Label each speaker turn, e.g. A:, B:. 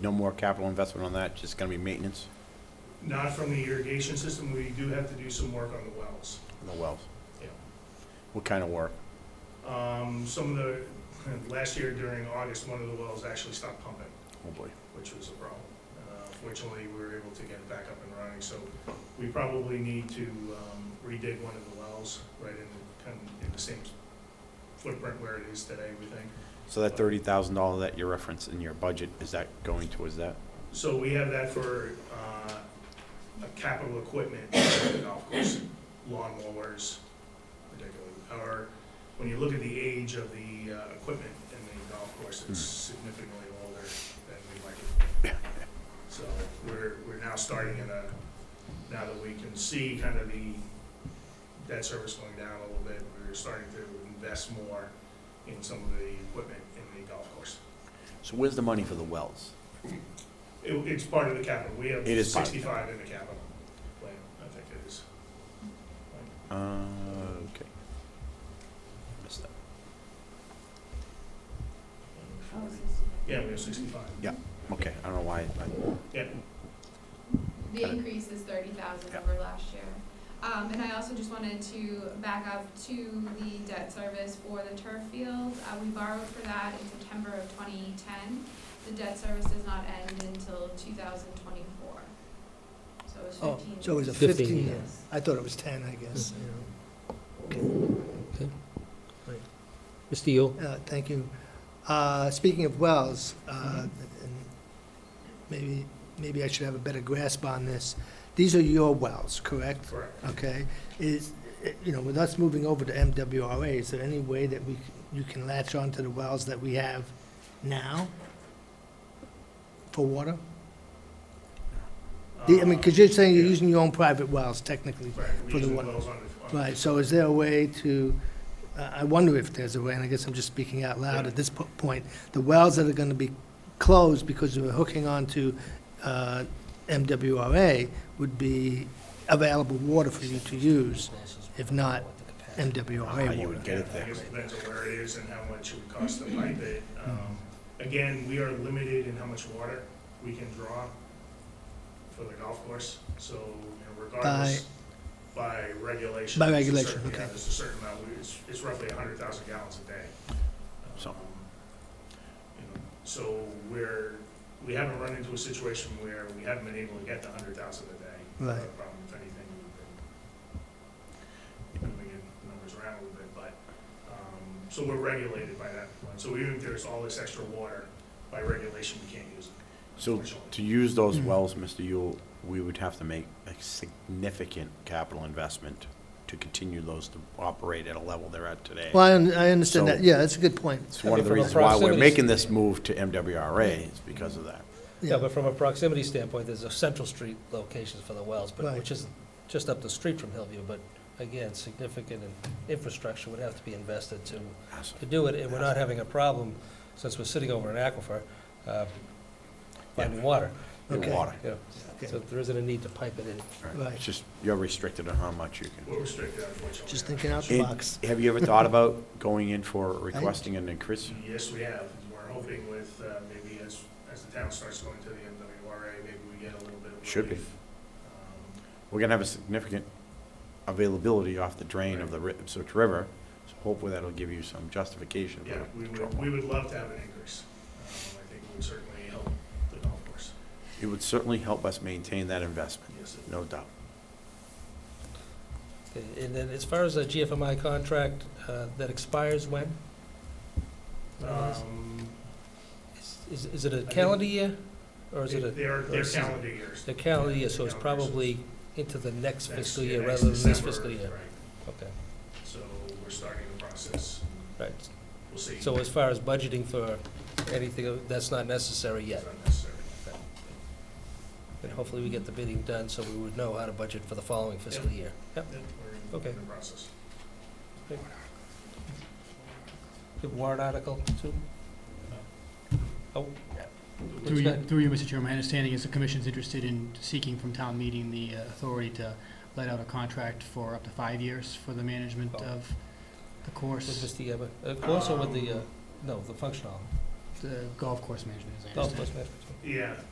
A: No more capital investment on that, just gonna be maintenance
B: Not from the irrigation system, we do have to do some work on the wells.
A: on the wells?
B: Yeah.
A: What kind of work?
B: Um, some of the, last year during August, one of the wells actually stopped pumping,
A: Oh, boy.
B: which was a problem. Uh, Fortunately, we were able to get it back up and running, so we probably need to, um, redig one of the wells right in, kind of in the same footprint where it is today, we think.
A: So that thirty thousand dollar that you referenced in your budget, is that going towards that?
B: So we have that for, uh, a capital equipment, for the golf course, lawn mowers, particularly. Or, when you look at the age of the, uh, equipment in the golf course, it's significantly older than we like it. So we're, we're now starting in a, now that we can see kind of the debt service going down a little bit, we're starting to invest more in some of the equipment in the golf course.
A: So where's the money for the wells?
B: It, it's part of the capital, we have
A: It is part of the
B: sixty-five in the capital plan, I think it is.
A: Uh, okay. Missed that.
C: Oh.
B: Yeah, we have sixty-five.
A: Okay, I don't know why, I-
C: The increase is thirty thousand
A: Yeah.
C: over last year. Um, and I also just wanted to back up to the debt service for the turf field. Uh, we borrowed for that in September of twenty ten. The debt service does not end until two thousand twenty-four. So it was
D: Oh,
C: fifteen.
D: so it was a
E: 15
D: 15 year.
C: years.
D: I thought it was 10, I guess, you know.
E: Mr. Yule?
D: Uh, Thank you. Uh, Speaking of wells, uh, and maybe, maybe I should have a better grasp on this. These are your wells, correct?
B: Correct.
D: Okay, is, eh, you know, with us moving over to MWRA, is there any way that we, c- you can latch on to the wells that we have now for water? The- I mean, because you're saying you're
B: Uh,
D: using your own private wells technically.
B: Right, we
D: for
B: use
D: the
B: the
D: one-
B: wells on the. on-
D: Right, so is there a way to, uh, I wonder if there's a way, and I guess I'm just speaking out loud at this po- point, the wells that are going to be closed because we're hooking on to uh, MWRA would be available water for you to use, if not
A: how
D: MWRA
A: Ah, you would
D: water.
A: get it
B: I
A: there.
B: guess it depends on where it is and how much it would cost to pipe it. Um, Again, we are limited in how much water we can draw for the golf course, so you know, regardless, by regulation.
D: By
B: there's a
D: regulation,
B: certain- yeah,
D: okay.
B: There's a certain amount, we- it's, it's roughly hundred thousand gallons a day.
A: So-
B: Um, you know, So we're, we haven't run into a situation where we haven't been able to get the hundred thousand a day.
D: Right.
B: Not a problem, if anything, we've been moving the numbers around a little bit, but um, So we're regulated by that one. So even if there's all this extra water, by regulation, we can't use it.
A: So to use those wells, Mr. Yule, we would have to make a significant capital investment to continue those to operate at a level they're at today.
D: Well, I un- I understand
A: So-
D: that, yeah, that's a good point.
A: It's one of the
E: From a
A: reasons why we're
E: proximity
A: making this move to MWRA is because of that.
E: Yeah, but from a proximity standpoint, there's a Central Street locations for the wells, but,
D: Right.
E: which is just up the street from Hillview, but again, significant in- infrastructure would have to be invested to, to do it, and we're not having a problem, since we're sitting over an aquifer, uh, finding water,
A: Your
D: Okay.
A: water.
E: you know, so
D: Okay,
E: there isn't a need to pipe it in.
A: Right. It's just, you're restricted on how much you can.
B: We're restricted, unfortunately.
D: Just thinking out the
A: It-
D: box.
A: Have you ever thought about going in for requesting an increase?
B: Yes, we have. We're hoping with, uh, maybe as, as the town starts going to the MWRA, maybe we get a little bit of.
A: Should be.
B: relief. Um,
A: We're gonna have a significant availability off the drain of the Ri- Ipswich River, so hopefully that'll give you some justification. for
B: Yeah, we
A: control.
B: would, we would love to have an increase. Um, I think it would certainly help the golf course.
A: It would certainly help us maintain that investment,
B: Yes, it-
A: no doubt.
E: And then as far as the GFMI contract, uh, that expires when?
B: Um,
E: Is- Is, is it a
B: think-
E: calendar year, or is it a?
B: They're,
E: or
B: they're
E: is it-
B: calendar years.
E: The calendar year, so it's
B: Calendar years.
E: probably into the
B: Next-
E: next fiscal
B: yeah,
E: year
B: next
E: rather than this
B: December,
E: fiscal year.
B: right.
E: Okay,
B: So we're starting the process.
E: right.
B: We'll see.
E: So as far as budgeting for anything, uh, that's not necessary yet.
B: It's unnecessary.
E: And hopefully we get the bidding done so we would know how to budget for the following fiscal
B: Yep.
E: year. Yep.
B: Yep, we're
E: Okay.
B: in the process.
E: The warrant article too? Oh,
F: Through you, through you, Mr. Chairman, my understanding is the commission's interested in seeking from town meeting the uh, authority to let out a contract for up to five years for the management
E: Oh.
F: of the
E: with
F: course,
E: Mr. Eber, of course, or with the, uh, no, the functional,
F: the golf course management, as I
E: golf
F: understand.
E: course management.
B: yeah.